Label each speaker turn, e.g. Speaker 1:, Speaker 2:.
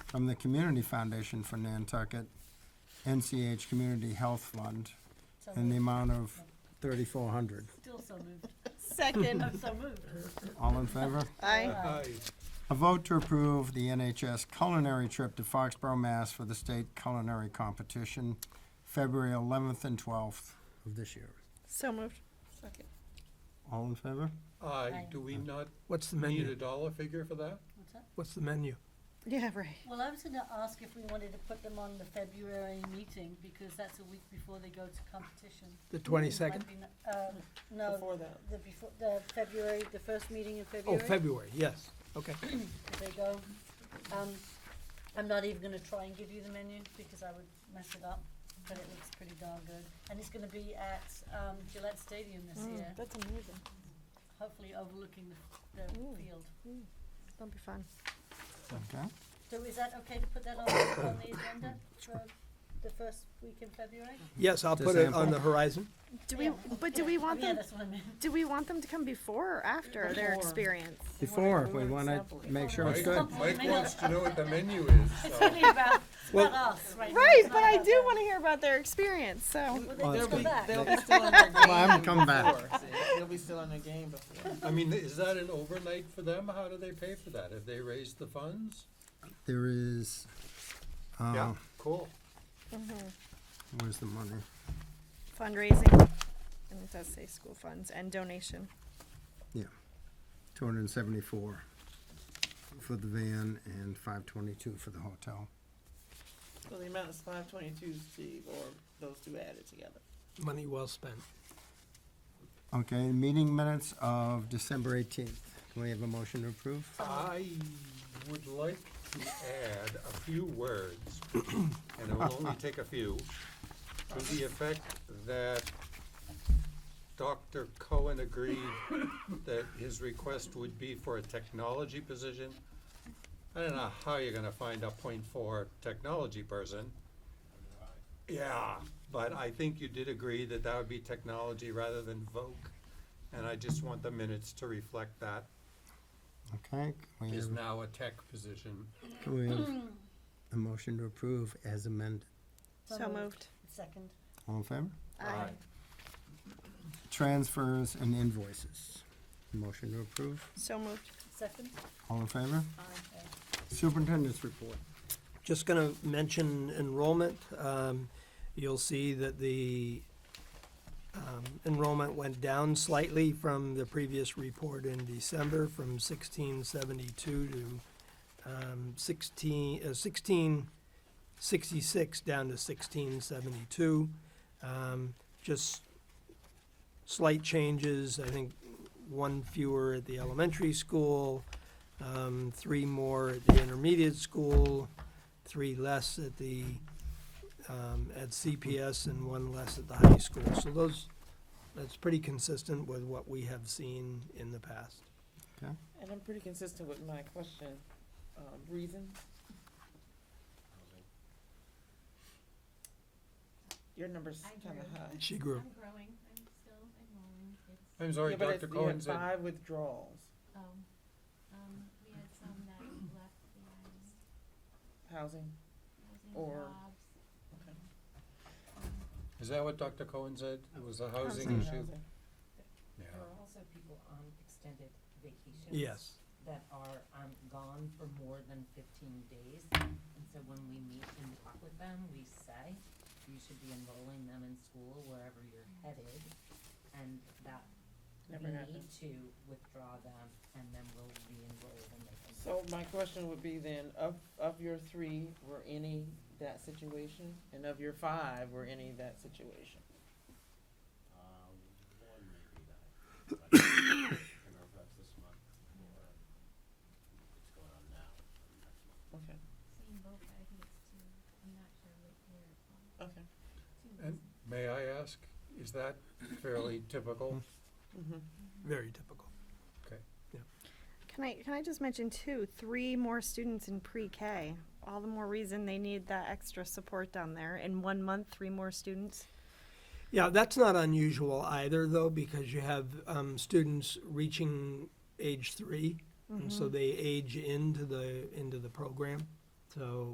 Speaker 1: from the Community Foundation for Nantucket, NCH Community Health Fund,
Speaker 2: So
Speaker 1: in the
Speaker 2: moved.
Speaker 1: amount of thirty-four hundred.
Speaker 2: Still so moved.
Speaker 3: Second.
Speaker 2: I'm so moved.
Speaker 1: All in favor?
Speaker 3: Aye.
Speaker 1: A vote to approve the NHS culinary trip to Foxborough, Mass. for the state culinary competition, February eleventh and twelfth of this year.
Speaker 3: So moved.
Speaker 2: Second.
Speaker 1: All in favor?
Speaker 2: Aye.
Speaker 4: Aye, do we not
Speaker 5: What's the
Speaker 4: need a
Speaker 5: menu?
Speaker 4: dollar figure for that?
Speaker 2: What's that?
Speaker 5: What's the menu?
Speaker 3: Yeah, right.
Speaker 2: Well, I was gonna ask if we wanted to put them on the February meeting, because that's a week before they go to competition.
Speaker 5: The twenty-second?
Speaker 2: Might be n- Um, no,
Speaker 3: Before that.
Speaker 2: the before, the February, the first meeting in
Speaker 5: Oh,
Speaker 2: February.
Speaker 5: February, yes, okay.
Speaker 2: if they go. Um, I'm not even gonna try and give you the menu because I would mess it up, but it looks pretty darn good. And it's gonna be at, um, Gillette Stadium this year,
Speaker 3: Oh, That's amazing.
Speaker 2: hopefully overlooking the, the
Speaker 3: Ooh.
Speaker 2: field.
Speaker 3: That'll be fun.
Speaker 1: Okay.
Speaker 2: So is that okay to put that on, on the agenda for the first week in February?
Speaker 5: Yes, I'll
Speaker 1: To
Speaker 5: put it on
Speaker 1: sample.
Speaker 5: the horizon.
Speaker 3: Do we,
Speaker 2: Yeah.
Speaker 3: but do we want
Speaker 2: Yeah,
Speaker 3: them,
Speaker 2: that's what I meant.
Speaker 3: do we want them to come before or after their experience?
Speaker 1: Before, we want to make sure it's good.
Speaker 2: Before.
Speaker 4: Mike wants to know what the menu is,
Speaker 2: It's
Speaker 4: so.
Speaker 2: only about, it's
Speaker 5: Well-
Speaker 2: about us right now.
Speaker 3: Right,
Speaker 2: It's
Speaker 3: but
Speaker 2: not
Speaker 3: I
Speaker 2: about
Speaker 3: do
Speaker 2: them.
Speaker 3: want to hear about their experience, so.
Speaker 2: Well,
Speaker 1: Well,
Speaker 2: they
Speaker 1: it's
Speaker 2: just come
Speaker 1: be-
Speaker 2: back.
Speaker 6: They'll be still on their game.
Speaker 1: Well, I'm coming back.
Speaker 6: before, see. They'll be still on their game before.
Speaker 4: I mean, is that an overnight for them? How do they pay for that? Have they raised the funds?
Speaker 1: There is, uh,
Speaker 4: Yeah, cool.
Speaker 1: where's the money?
Speaker 3: Fundraising, and it does say school funds and donation.
Speaker 1: Yeah, two hundred and seventy-four for the van and five twenty-two for the hotel.
Speaker 6: So the amount is five twenty-two, Steve, or those two added together.
Speaker 5: Money well spent.
Speaker 1: Okay, meeting minutes of December eighteenth. Can we have a motion to approve?
Speaker 4: I would like to add a few words, and it will only take a few, to the effect that Dr. Cohen agreed that his request would be for a technology position. I don't know how you're gonna find a point four technology person. Yeah, but I think you did agree that that would be technology rather than voc, and I just want the minutes to reflect that
Speaker 1: Okay, can we
Speaker 4: is
Speaker 1: have,
Speaker 4: now a tech position.
Speaker 1: can we have a motion to approve as amended?
Speaker 3: So moved.
Speaker 2: Second.
Speaker 1: All in favor?
Speaker 3: Aye.
Speaker 1: Transfers and invoices. Motion to approve.
Speaker 3: So moved.
Speaker 2: Second?
Speaker 1: All in favor?
Speaker 2: Aye.
Speaker 1: Superintendent's report.
Speaker 5: Just gonna mention enrollment. Um, you'll see that the, um, enrollment went down slightly from the previous report in December, from sixteen seventy-two to, um, sixteen, uh, sixteen sixty-six down to sixteen seventy-two. Um, just slight changes, I think one fewer at the elementary school, um, three more at the intermediate school, three less at the, um, at CPS and one less at the high school. So those, that's pretty consistent with what we have seen in the past.
Speaker 6: And I'm pretty consistent with my question, um, reason. Your number's
Speaker 7: I
Speaker 6: kinda
Speaker 7: agree.
Speaker 6: high.
Speaker 5: She grew,
Speaker 7: I'm growing, I'm still enrolling, it's,
Speaker 4: I'm sorry,
Speaker 6: Yeah, but
Speaker 4: Dr.
Speaker 6: it's, you
Speaker 4: Cohen
Speaker 6: had
Speaker 4: said,
Speaker 6: five withdrawals.
Speaker 7: um, um, we had some that left behind,
Speaker 6: Housing,
Speaker 7: losing
Speaker 6: Or-
Speaker 7: jobs.
Speaker 6: okay.
Speaker 4: is that what Dr. Cohen said? It was a housing
Speaker 1: Housing.
Speaker 4: issue?
Speaker 6: Housing.
Speaker 4: Yeah.
Speaker 8: There are also people on extended vacations.
Speaker 5: yes,
Speaker 8: That are, um, gone for more than fifteen days, and so when we meet and talk with them, we say, you should be enrolling them in school wherever you're headed, and that
Speaker 6: Never
Speaker 8: we
Speaker 6: happened.
Speaker 8: need to withdraw them, and then we'll re-enroll them. they can-
Speaker 6: So my question would be then, of, of your three, were any that situation? And of your five, were any that situation? Okay,
Speaker 7: Seeing both, but I think it's two, I'm not sure what year it was.
Speaker 6: okay.
Speaker 7: Two
Speaker 4: And may I ask, is that fairly typical?
Speaker 6: Mm-hmm.
Speaker 5: very typical.
Speaker 3: Can I, can I just mention too, three more students in pre-K? All the more reason they need that extra support down there. In one month, three more students.
Speaker 5: Yeah, that's not unusual either, though, because you have um, students Mm-hmm. reaching age 3 and so they age into the into the program. So